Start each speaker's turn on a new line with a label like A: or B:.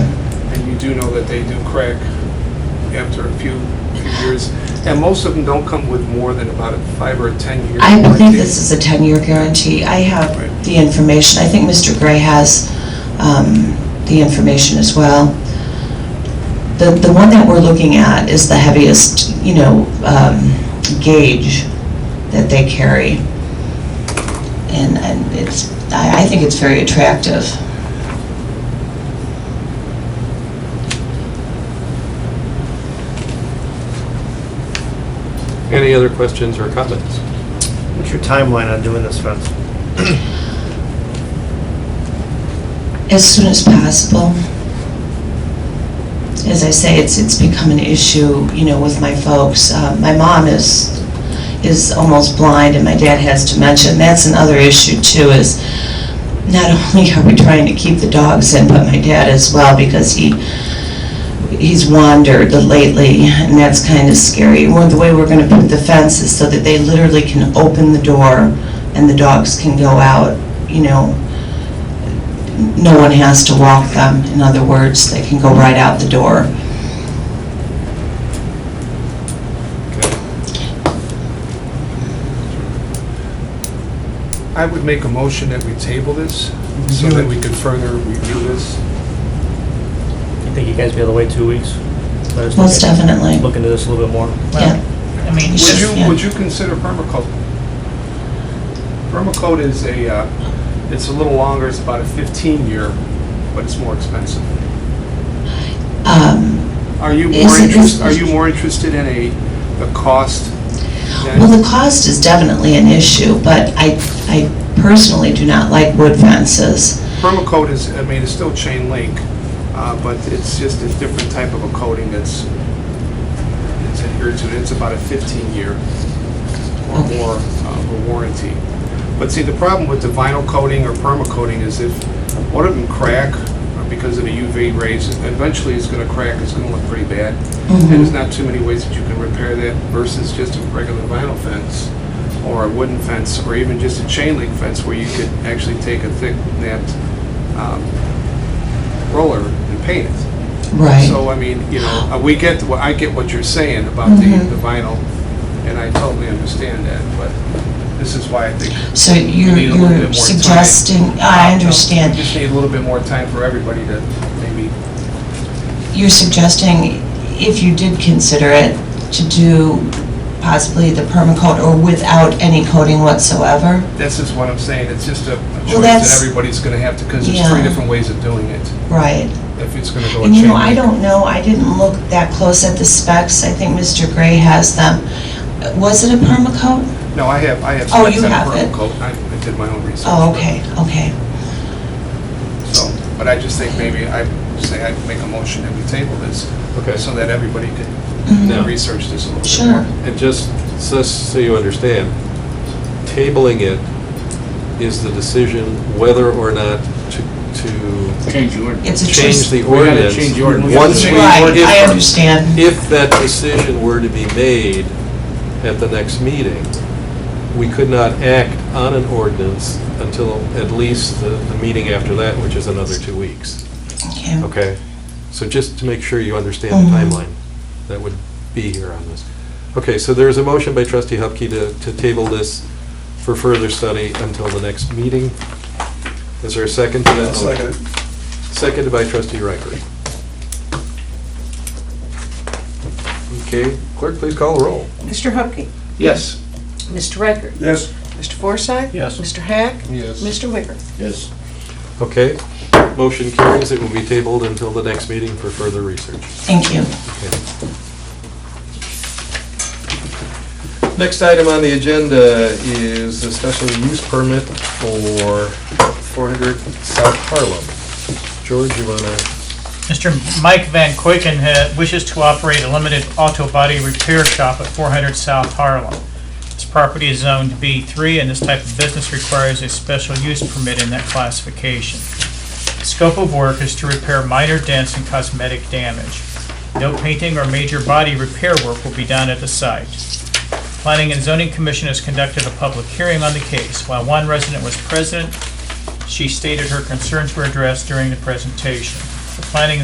A: do know that they do crack after a few, few years. And most of them don't come with more than about a five or a 10-year
B: I
A: warranty.
B: believe this is a 10-year guarantee. I have the information. I think Mr. Gray has um, the information as well. The, the one that we're looking at is the heaviest, you know, um, gauge that they carry. And, and it's, I, I think it's very attractive.
C: Any other questions or comments?
D: What's your timeline on doing this fence?
B: As soon as possible. As I say, it's, it's become an issue, you know, with my folks. Uh, My mom is, is almost blind and my dad has dementia. And that's another issue too, is not only are we trying to keep the dogs in, but my dad as well because he, he's wandered lately and that's kind of scary. One, the way we're going to put the fence is so that they literally can open the door and the dogs can go out, you know, no one has to walk them. In other words, they can go right out the door.
A: I would make a motion that we table this so that we can further review this.
D: You think you guys be able to wait two weeks? Let us
B: Most
D: look at-
B: definitely.
D: Look into this a little bit more.
B: Yeah.
E: I mean,
A: Would
B: Sure, yeah.
A: you, would you consider permacoat? Permacoat is a, uh, it's a little longer, it's about a 15-year, but it's more expensive.
B: Um,
A: Are you
B: Is
A: more
B: it-
A: interested, are you more interested in a, the cost? than-
B: Well, the cost is definitely an issue, but I, I personally do not like wood fences.
A: Permacoat is, I mean, it's still chain link, uh, but it's just a different type of a coating that's, it's adhered to, it's about a 15-year or
B: Okay.
A: more of a warranty. But see, the problem with the vinyl coating or permacoating is if one of them crack uh, because of the UV rays, eventually it's gonna crack, it's gonna look pretty bad. And
B: Mm-hmm.
A: there's not too many ways that you can repair that versus just a regular vinyl fence or a wooden fence or even just a chain link fence where you could actually take a thick napped um, roller and paint it.
B: Right.
A: So, I mean, you know, uh, we get, wh- I get what you're saying about the
B: Mhm.
A: the vinyl, and I totally understand that, but this is why I think
B: So
A: we
B: you're,
A: need a little bit more
B: you're
A: time.
B: suggesting, I
A: Uh,
B: understand.
A: We just need a little bit more time for everybody to maybe,
B: You're suggesting, if you did consider it, to do possibly the permacoat or without any coating whatsoever?
A: this is what I'm saying, it's just a a choice
B: that's-
A: that everybody's going to have to, because there's three
B: Yeah.
A: different ways of doing it,
B: Right.
A: if it's going to go a
B: And you
A: chain
B: know, I
A: link.
B: don't know, I didn't look that close at the specs, I think Mr. Gray has them. Was it a permacoat?
A: No, I have, I have.
B: Oh,
A: specs
B: you
A: on a
B: have
A: purple
B: it.
A: coat. I I did my own research.
B: Oh, okay, okay.
A: but- So, but I just think maybe, I say I'd make a motion that we table this,
C: Okay,
A: so that everybody could
C: No.
A: research this a little bit more.
B: Sure,
C: and just, so so you understand, tabling it is the decision whether or not to, to
F: Change the ordinance.
B: it's a
C: change
B: choice.
C: the
F: We gotta
C: ordinance.
F: change the ordinance.
C: Once we-
B: Right, I
C: if-
B: understand.
C: If that decision were to be made at the next meeting, we could not act on an ordinance until at least the, the meeting after that, which is another two weeks.
B: Okay.
C: Okay, so just to make sure you understand the
B: Mhm.
C: timeline that would be here on this. Okay, so there's a motion by trustee Hupkey to, to table this for further study until the next meeting. Is there a second to that? motion? Seconded by trustee Riker. Okay, clerk, please call the roll.
E: Mr. Hupkey,
A: Yes.
E: Mr. Riker,
A: Yes.
E: Mr. Forsythe.
D: Yes.
E: Mr. Hack,
A: Yes.
E: Mr. Wicker.
F: Yes.
C: Okay, motion carries, it will be tabled until the next meeting for further research.
B: Thank you.
C: Next item on the agenda is a special use permit for 400 South Harlem. George, you want to,
G: Mr. Mike Van Kuiken ha- wishes to operate a limited auto body repair shop at 400 South Harlem. This property is zoned B3, and this type of business requires a special use permit in that classification. The Scope of work is to repair minor dents and cosmetic damage. No painting or major body repair work will be done at the site. Planning and Zoning Commission has conducted a public hearing on the case. While one resident was present, she stated her concerns were addressed during the presentation. The Planning and